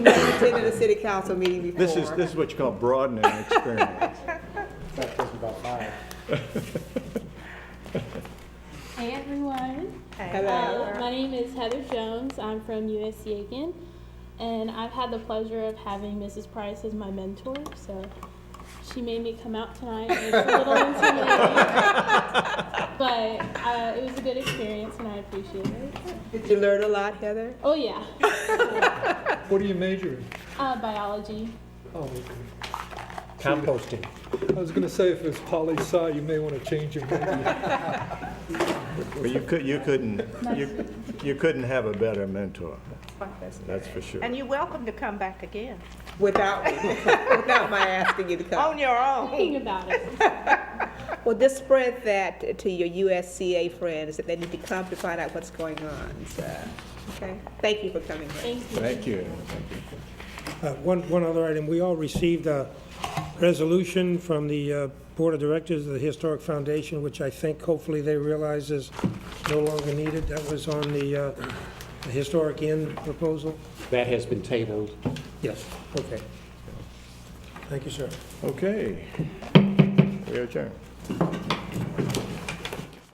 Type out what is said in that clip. never attended a city council meeting before. This is, this is what you call broadening experience. That was about five. Hey everyone, Hello. Uh, my name is Heather Jones. I'm from USC Aiken, and I've had the pleasure of having Mrs. Price as my mentor. So she made me come out tonight. It's a little intimidating, but uh, it was a good experience, and I appreciate it. Did you learn a lot, Heather? Oh yeah, What are you majoring? uh, biology. Oh, okay. Composting. I was gonna say, if it's poli sci, you may wanna change your major. Well, you could, you couldn't, you, you couldn't have a better mentor, that's for sure. And you're welcome to come back again, Without, without my asking you to come. on your own. Thinking about it. Well, just spread that to your USCA friends, that they need to come to find out what's going on, so, okay? Thank you for coming. Ray. Thank you. Thank you. Uh, One, one other item, we all received a resolution from the uh, Board of Directors of the Historic Foundation, which I think hopefully they realize is no longer needed. That was on the uh, the Historic Inn proposal? That has been tabled. Yes. Okay. Thank you, sir. Okay. We adjourn.